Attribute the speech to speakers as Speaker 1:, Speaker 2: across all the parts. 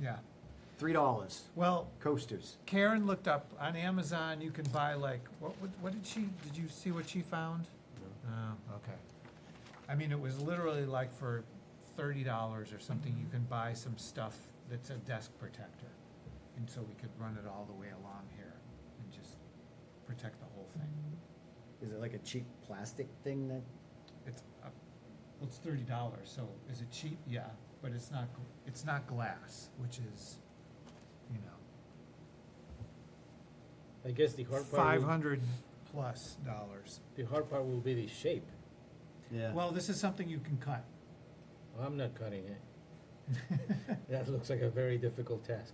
Speaker 1: yeah.
Speaker 2: Three dollars,
Speaker 1: Well,
Speaker 2: coasters.
Speaker 1: Karen looked up, on Amazon, you can buy like, what, what- what did she, did you see what she found? Oh, okay. I mean, it was literally like for thirty dollars or something, you can buy some stuff that's a desk protector. And so we could run it all the way along here and just protect the whole thing.
Speaker 2: Is it like a cheap plastic thing that?
Speaker 1: It's, uh, well, it's thirty dollars, so is it cheap? Yeah, but it's not, gl- it's not glass, which is, you know,
Speaker 3: I guess the hard part,
Speaker 1: five
Speaker 3: will-
Speaker 1: hundred plus dollars.
Speaker 3: the hard part will be the shape.
Speaker 2: Yeah.
Speaker 1: Well, this is something you can cut.
Speaker 3: I'm not cutting it. That looks like a very difficult task.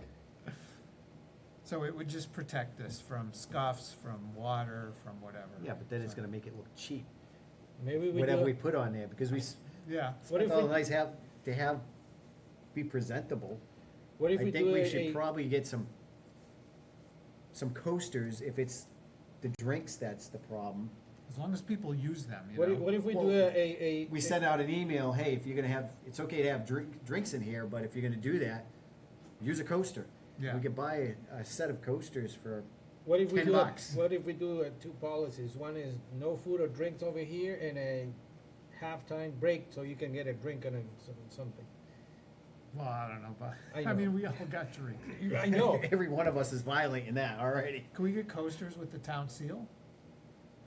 Speaker 1: So it would just protect this from scuffs, from water, from whatever.
Speaker 2: Yeah, but then it's gonna make it look cheap,
Speaker 3: Maybe we
Speaker 2: whatever
Speaker 3: do
Speaker 2: we
Speaker 3: a-
Speaker 2: put on there, because we, s-
Speaker 1: Yeah,
Speaker 3: What if
Speaker 2: well,
Speaker 3: we-
Speaker 2: nice have, to have, be presentable.
Speaker 3: What
Speaker 2: I
Speaker 3: if we
Speaker 2: think
Speaker 3: do
Speaker 2: we
Speaker 3: a-
Speaker 2: should
Speaker 3: a-
Speaker 2: probably get some, some coasters if it's the drinks that's the problem.
Speaker 1: as long as people use them, you
Speaker 3: What
Speaker 1: know.
Speaker 3: if, what if we do
Speaker 2: Well,
Speaker 3: a, a, a?
Speaker 2: We sent out an email, hey, if you're gonna have, it's okay to have drink, drinks in here, but if you're gonna do that, use a coaster.
Speaker 1: Yeah.
Speaker 2: We could buy a, a set of coasters for,
Speaker 3: What if we
Speaker 2: 10
Speaker 3: do, a-
Speaker 2: bucks.
Speaker 3: what if we do uh, two policies? One is no food or drinks over here and a halftime break so you can get a drink and a, some- something.
Speaker 1: Well, I don't know, but,
Speaker 3: I
Speaker 1: I
Speaker 3: know.
Speaker 1: mean, we all got drinks.
Speaker 3: I know.
Speaker 2: every one of us is violating that already.
Speaker 1: Can we get coasters with the town seal?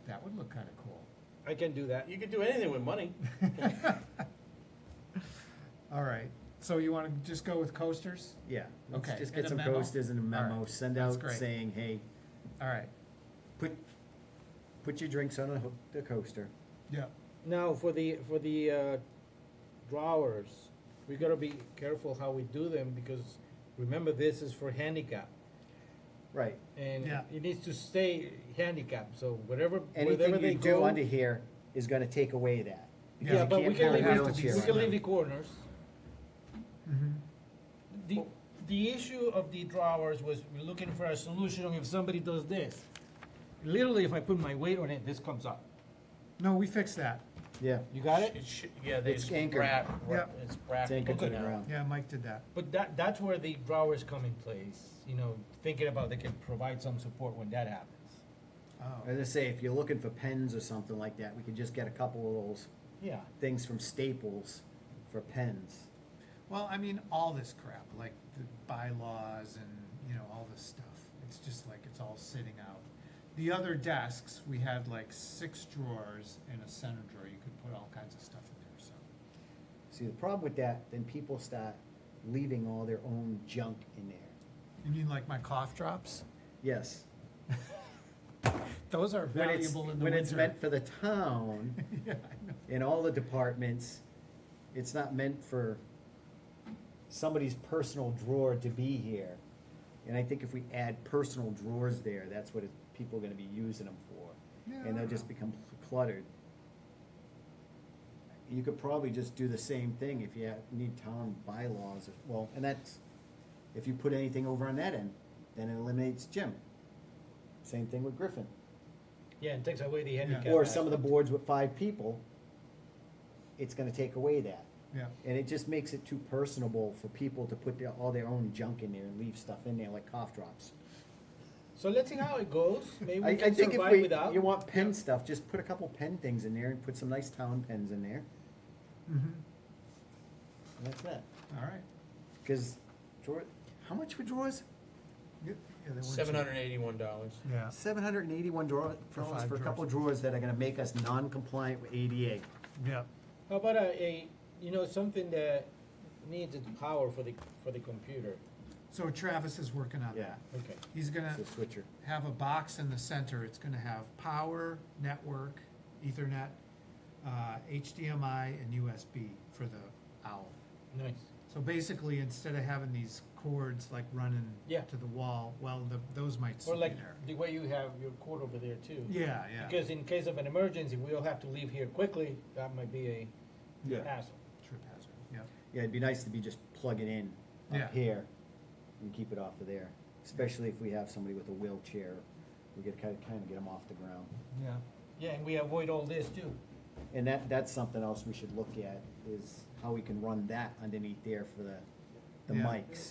Speaker 1: That would look kinda cool.
Speaker 3: I can do that.
Speaker 4: You could do anything with money.
Speaker 1: All right, so you wanna just go with coasters?
Speaker 2: Yeah. let's
Speaker 1: Okay,
Speaker 2: Just
Speaker 1: and
Speaker 2: get
Speaker 1: a
Speaker 2: some
Speaker 1: memo?
Speaker 2: coasters and a
Speaker 1: All right,
Speaker 2: memo, send
Speaker 1: that's
Speaker 2: out
Speaker 1: great.
Speaker 2: saying, hey,
Speaker 1: All right,
Speaker 2: put, put your drinks on a ho- the coaster.
Speaker 1: yeah,
Speaker 3: Now, for the, for the, uh, drawers, we gotta be careful how we do them because remember this is for handicap.
Speaker 2: Right.
Speaker 3: And
Speaker 1: Yeah.
Speaker 3: it needs to stay handicap, so whatever, wherever
Speaker 2: Anything
Speaker 3: they
Speaker 2: you do
Speaker 3: go.
Speaker 2: under here is gonna take away that.
Speaker 1: Yeah,
Speaker 3: Yeah,
Speaker 2: you
Speaker 3: but we
Speaker 2: can't
Speaker 3: can
Speaker 2: have
Speaker 3: leave,
Speaker 2: a
Speaker 3: it-
Speaker 2: wheelchair
Speaker 3: we
Speaker 2: on
Speaker 3: can
Speaker 2: that.
Speaker 3: leave the corners.
Speaker 1: mhm,
Speaker 3: The, the issue of the drawers was we're looking for a solution if somebody does this. Literally, if I put my weight on it, this comes up.
Speaker 1: no, we fixed that,
Speaker 2: Yeah,
Speaker 3: You got it?
Speaker 4: It should, yeah, they
Speaker 2: It's
Speaker 4: just
Speaker 2: anchored.
Speaker 4: wrap,
Speaker 1: Yep.
Speaker 4: it's wrapped.
Speaker 2: it's anchored to the
Speaker 3: Okay.
Speaker 2: ground.
Speaker 1: yeah, Mike did that.
Speaker 3: But that, that's where the drawers come in place, you know, thinking about they can provide some support when that happens.
Speaker 2: I was
Speaker 1: Oh,
Speaker 2: gonna say, if you're looking for pens or something like that, we could just get a couple of those
Speaker 3: Yeah.
Speaker 2: things from Staples for pens.
Speaker 1: well, I mean, all this crap, like the bylaws and, you know, all this stuff, it's just like, it's all sitting out. The other desks, we had like six drawers and a center drawer, you could put all kinds of stuff in there, so.
Speaker 2: See, the problem with that, then people start leaving all their own junk in there.
Speaker 1: You mean like my cough drops?
Speaker 2: Yes.
Speaker 1: Those are
Speaker 2: When it's-
Speaker 1: valuable in the
Speaker 2: When
Speaker 1: winter.
Speaker 2: it's meant for the town.
Speaker 1: Yeah, I know.
Speaker 2: in all the departments, it's not meant for somebody's personal drawer to be here. And I think if we add personal drawers there, that's what it, people are gonna be using them for.
Speaker 1: Yeah, I
Speaker 2: And they'll
Speaker 1: don't
Speaker 2: just
Speaker 1: know.
Speaker 2: become cluttered. You could probably just do the same thing if you ha- need town bylaws, well, and that's, if you put anything over on that end, then it eliminates Jim. Same thing with Griffin.
Speaker 3: Yeah, and takes away the handicap.
Speaker 2: Or some of the
Speaker 3: aspect.
Speaker 2: boards with five people, it's gonna take away that.
Speaker 1: Yeah,
Speaker 2: And it just makes it too personable for people to put their, all their own junk in there and leave stuff in there like cough drops.
Speaker 3: So let's see how it goes. Maybe
Speaker 2: I,
Speaker 3: we
Speaker 2: I
Speaker 3: can
Speaker 2: think if
Speaker 3: survive
Speaker 2: we,
Speaker 3: without.
Speaker 2: you want pen stuff, just put a couple pen things in there and put some nice town pens in there.
Speaker 1: mhm,
Speaker 2: And that's that.
Speaker 1: all right.
Speaker 2: Cause drawer, how much for drawers?
Speaker 1: Yeah, they were
Speaker 4: Seven
Speaker 1: cheap.
Speaker 4: hundred and eighty-one dollars.
Speaker 1: Yeah,
Speaker 2: Seven hundred and eighty-one drawer,
Speaker 1: For
Speaker 2: dollars
Speaker 1: five
Speaker 2: for a couple
Speaker 1: drawers.
Speaker 2: drawers that are gonna make us non-compliant with ADA.
Speaker 1: yeah,
Speaker 3: How about a, a, you know, something that needs its power for the, for the computer?
Speaker 1: so Travis is working on
Speaker 2: Yeah,
Speaker 1: that.
Speaker 3: Okay.
Speaker 1: He's gonna
Speaker 2: it's a switcher.
Speaker 1: have a box in the center, it's gonna have power, network, ethernet, uh, HDMI and USB for the owl.
Speaker 3: Nice.
Speaker 1: So basically, instead of having these cords like running
Speaker 3: Yeah.
Speaker 1: to the wall, well, the, those might
Speaker 3: Or
Speaker 1: sit
Speaker 3: like
Speaker 1: there.
Speaker 3: the way you have your cord over there too.
Speaker 1: Yeah, yeah.
Speaker 3: Because in case of an emergency, we'll have to leave here quickly. That might be a
Speaker 2: Yeah.
Speaker 3: hassle.
Speaker 1: Trip hazard, yeah.
Speaker 2: Yeah, it'd be nice to be just plugging in
Speaker 1: Yeah.
Speaker 2: up here and keep it off of there, especially if we have somebody with a wheelchair. We gotta kinda, kinda get them off the ground.
Speaker 1: Yeah.
Speaker 3: Yeah, and we avoid all this too.
Speaker 2: And that, that's something else we should look at, is how we can run that underneath there for the, the
Speaker 1: Yeah.
Speaker 2: mics.